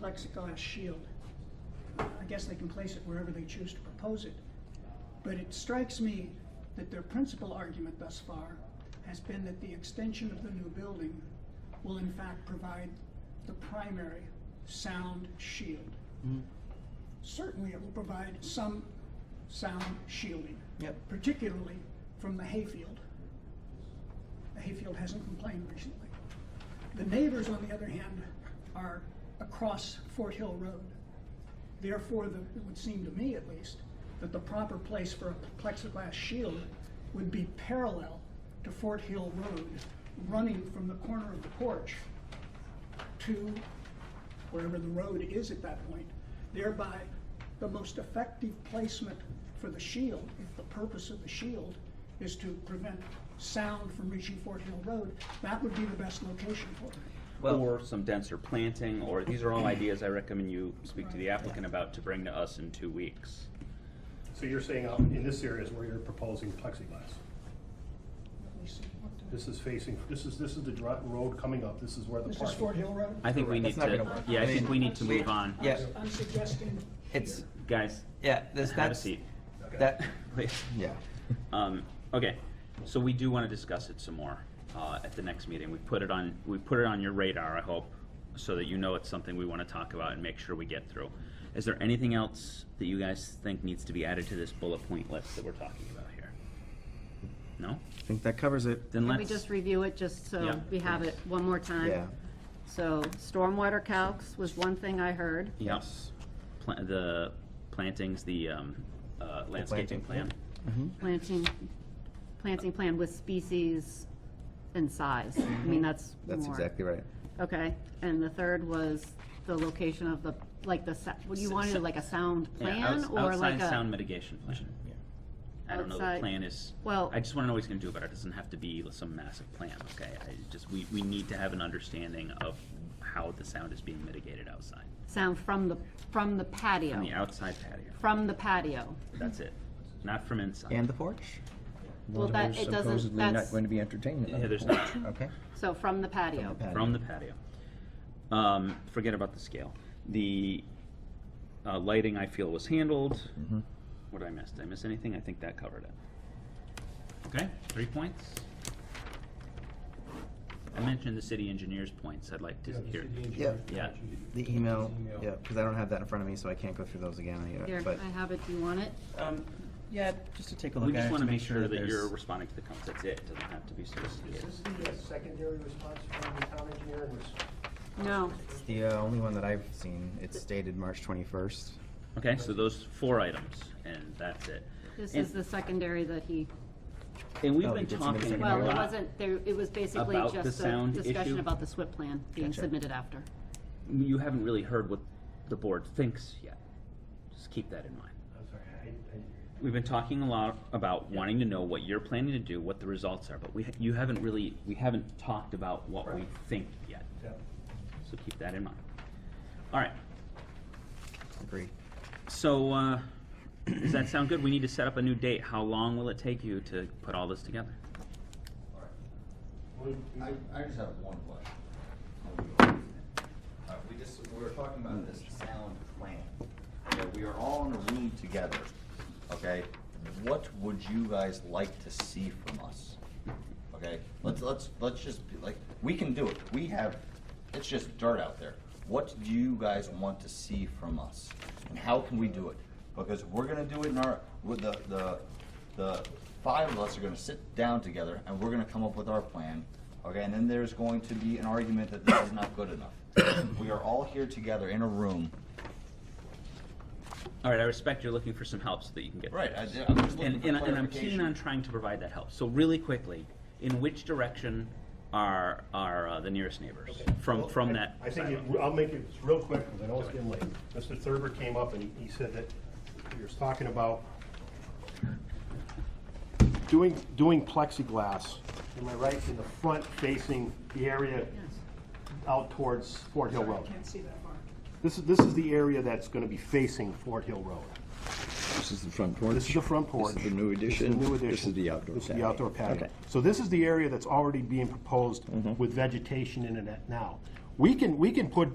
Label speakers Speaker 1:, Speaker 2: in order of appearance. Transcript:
Speaker 1: plexiglass shield. I guess they can place it wherever they choose to propose it. But it strikes me that their principal argument thus far has been that the extension of the new building will in fact provide the primary sound shield. Certainly, it will provide some sound shielding,
Speaker 2: Yep.
Speaker 1: particularly from the hayfield. The hayfield hasn't complained recently. The neighbors, on the other hand, are across Fort Hill Road. Therefore, the, it would seem to me at least, that the proper place for a plexiglass shield would be parallel to Fort Hill Road, running from the corner of the porch to wherever the road is at that point, thereby the most effective placement for the shield, if the purpose of the shield is to prevent sound from reaching Fort Hill Road, that would be the best location for it.
Speaker 2: Well-
Speaker 3: or some denser planting, or these are all ideas I recommend you speak to the
Speaker 1: Right.
Speaker 3: applicant about to bring to us in two weeks.
Speaker 4: So you're saying out in this area is where you're proposing plexiglass?
Speaker 1: Let me see what the-
Speaker 4: This is facing, this is, this is the dri- road coming up, this is where the
Speaker 1: This
Speaker 4: parking.
Speaker 1: is Fort Hill Road?
Speaker 3: I think we
Speaker 2: That's
Speaker 3: need
Speaker 2: not gonna
Speaker 3: to,
Speaker 2: work.
Speaker 3: yeah, I
Speaker 2: I
Speaker 3: think
Speaker 2: mean,
Speaker 3: we need to
Speaker 1: we-
Speaker 3: move on.
Speaker 2: Yeah.
Speaker 1: I'm suggesting.
Speaker 2: It's,
Speaker 3: Guys,
Speaker 2: yeah, this,
Speaker 3: have a
Speaker 2: that's,
Speaker 3: seat.
Speaker 2: that,
Speaker 3: Please.
Speaker 2: yeah.
Speaker 3: Um, okay, so we do want to discuss it some more uh, at the next meeting. We put it on, we put it on your radar, I hope, so that you know it's something we want to talk about and make sure we get through. Is there anything else that you guys think needs to be added to this bullet point list that we're talking about here? No?
Speaker 5: I think that covers it.
Speaker 3: Then
Speaker 6: Can we
Speaker 3: let's.
Speaker 6: just review it, just
Speaker 3: Yeah,
Speaker 6: so we have it one more time?
Speaker 5: Yeah.
Speaker 6: So stormwater calcs was one thing I heard.
Speaker 3: Yep. Pla- the plantings, the um, uh, landscaping
Speaker 2: planting,
Speaker 3: plan.
Speaker 6: Planting, planting plan with species and size. I mean, that's
Speaker 5: Mm-hmm. That's
Speaker 6: more.
Speaker 5: exactly right.
Speaker 6: Okay, and the third was the location of the, like the, sa- what, you
Speaker 3: S-
Speaker 6: wanted
Speaker 3: s-
Speaker 6: like a sound
Speaker 3: Yeah,
Speaker 6: plan
Speaker 3: outs-
Speaker 6: or like
Speaker 3: outside
Speaker 6: a?
Speaker 3: sound mitigation plan. I don't know the
Speaker 6: Outside-
Speaker 3: plan is,
Speaker 6: well-
Speaker 3: I just wanna know what he's gonna do about it, it doesn't have to be some massive plan, okay? I just, we, we need to have an understanding of how the sound is being mitigated outside,
Speaker 6: Sound from the, from the
Speaker 3: on
Speaker 6: patio,
Speaker 3: the outside patio,
Speaker 6: from the patio.
Speaker 3: that's it, not from inside.
Speaker 2: And the porch?
Speaker 6: Well, that, it doesn't, that's,
Speaker 5: be entertainment.
Speaker 3: Yeah, there's not,
Speaker 2: Okay.
Speaker 6: so from the patio.
Speaker 3: from the patio. Um, forget about the scale, the, uh, lighting I feel was handled, what did I miss, did I miss anything? I think that covered it. Okay, three points? I mentioned the city engineer's points, I'd like to hear.
Speaker 2: Yeah,
Speaker 3: Yeah,
Speaker 2: the email, yeah, because I don't have that in front of me, so I can't go through those again,
Speaker 6: Here,
Speaker 2: but.
Speaker 6: I have it, do you want it?
Speaker 2: Um, yeah, just to take a look
Speaker 3: we
Speaker 2: at it.
Speaker 3: just want to make sure that
Speaker 2: there's-
Speaker 3: you're responding to the comments, that's it, doesn't have to be
Speaker 4: Is
Speaker 3: solicited.
Speaker 4: this the uh, secondary response from the town engineer was,
Speaker 6: No,
Speaker 2: It's The uh, only one that I've seen, it's dated March twenty-first.
Speaker 3: Okay, so those four items, and that's it.
Speaker 6: this
Speaker 3: And-
Speaker 6: is the secondary that he,
Speaker 3: And we've
Speaker 2: Oh,
Speaker 3: been
Speaker 2: we did submit a
Speaker 3: talking a
Speaker 2: secondary
Speaker 6: well, it
Speaker 2: lot.
Speaker 6: wasn't, there, it was basically
Speaker 3: About the
Speaker 6: just a
Speaker 3: sound
Speaker 6: discussion
Speaker 3: issue?
Speaker 6: about the SWIP plan being
Speaker 2: Gotcha.
Speaker 6: submitted after.
Speaker 3: You haven't really heard what the board thinks yet, just keep that in mind.
Speaker 4: I'm sorry, I, I,
Speaker 3: We've been talking a lot about wanting to know what you're planning to do, what the results are, but we, you haven't really, we haven't talked about what we
Speaker 4: Right.
Speaker 3: think yet,
Speaker 4: yeah.
Speaker 3: so keep that in mind. All right,
Speaker 2: Agreed.
Speaker 3: so, uh, does that sound good? We need to set up a new date, how long will it take you to put all this together?
Speaker 4: Well,
Speaker 7: I, I just have one question. Uh, we just, we were talking about this sound plan. Okay, we are all in a room together, okay? What would you guys like to see from us? Okay, let's, let's, let's just, be like, we can do it, we have, it's just dirt out there. What do you guys want to see from us? And how can we do it? Because we're gonna do it in our, with the, the, the five of us are gonna sit down together and we're gonna come up with our plan. Okay, and then there's going to be an argument that this is not good enough. We are all here together in a room.
Speaker 3: All right, I respect you're looking for some help so that you can get.
Speaker 7: Right, I-
Speaker 3: through this.
Speaker 7: I'm just looking
Speaker 3: And,
Speaker 7: for
Speaker 3: and, I- and I'm keen
Speaker 7: clarification.
Speaker 3: on trying to provide that help. So really quickly, in which direction are, are uh, the nearest neighbors from,
Speaker 4: Well,
Speaker 3: from
Speaker 4: I-
Speaker 3: that?
Speaker 4: I think,
Speaker 3: silo?
Speaker 4: it- I'll make it real quick, because I know it's getting late. Mr. Thurber came up and he said that he was talking about doing, doing plexiglass, am I right, in the front facing the area out towards Fort Hill
Speaker 1: Sorry, I
Speaker 4: Road.
Speaker 1: can't see that far.
Speaker 4: This is, this is the area that's gonna be facing Fort Hill Road.
Speaker 5: This is the front porch.
Speaker 4: This is the front porch.
Speaker 5: This is the new
Speaker 4: This is the
Speaker 5: addition.
Speaker 4: new
Speaker 5: This
Speaker 4: addition.
Speaker 5: is the outdoor
Speaker 4: This is the
Speaker 5: patio.
Speaker 4: outdoor patio.
Speaker 5: Okay.
Speaker 4: So this is the area that's already being proposed with vegetation in it now. We can, we can put